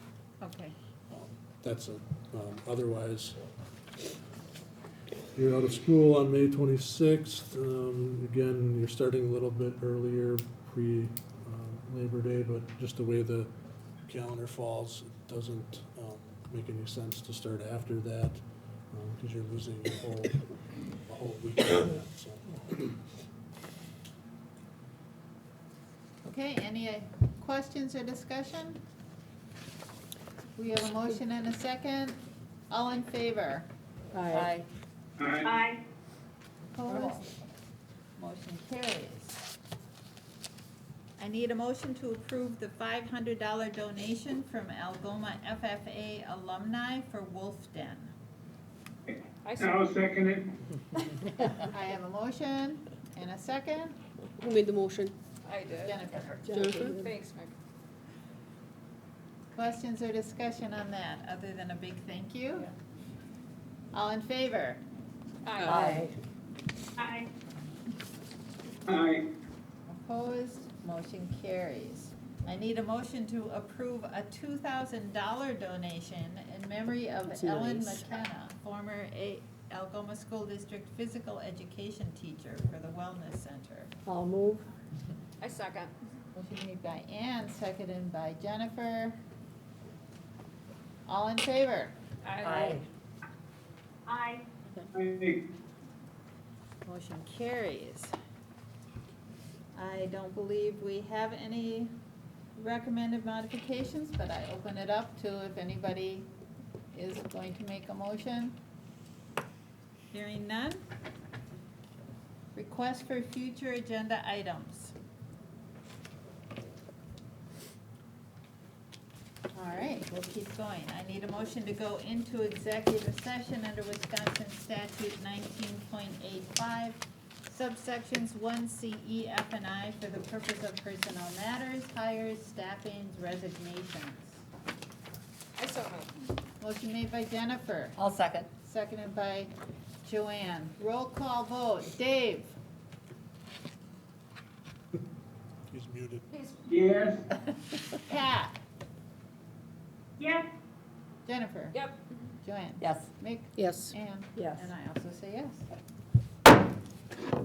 Okay. That's it. Um, Otherwise, you're out of school on May twenty-sixth. um, Again, you're starting a little bit earlier, pre-Labor Day, but just the way the calendar falls, it doesn't um, make any sense to start after that, because you're losing a whole, a whole week of that, so. Okay, any uh, questions or discussion? We have a motion and a second. All in favor? Aye. Aye. Opposed? Motion carries. I need a motion to approve the five hundred dollar donation from Algoma FFA alumni for Wolf Den. I I'll second it. I have a motion and a second. Who made the motion? I did. Jennifer, Jennifer? Thanks, Mike. questions or discussion on that, other than a big thank you? All in favor? Aye. Aye. Aye. Opposed, motion carries. I need a motion to approve a two thousand dollar donation in memory of That's Ellen nice. McKenna, former A- Algoma School District Physical Education Teacher for the Wellness Center. I'll move. I second. Motion made by Ann, seconded by Jennifer. All in favor? Aye. Aye. Aye. Motion carries. I don't believe we have any recommended modifications, but I open it up to if anybody is going to make a motion. Hearing none. Request for future agenda items. All right, we'll keep going. I need a motion to go into executive session under Wisconsin statute nineteen point eight five, subsections one C, E, F, and I for the purpose of personnel matters, hires, staffings, resignations. I so moved. Motion made by Jennifer, I'll second. seconded by Joanne. Roll call vote. Dave? He's muted. Yes. Pat? Yes. Jennifer? Yep. Joanne? Yes. Mick? Yes. Anne? Yes. And I also say yes.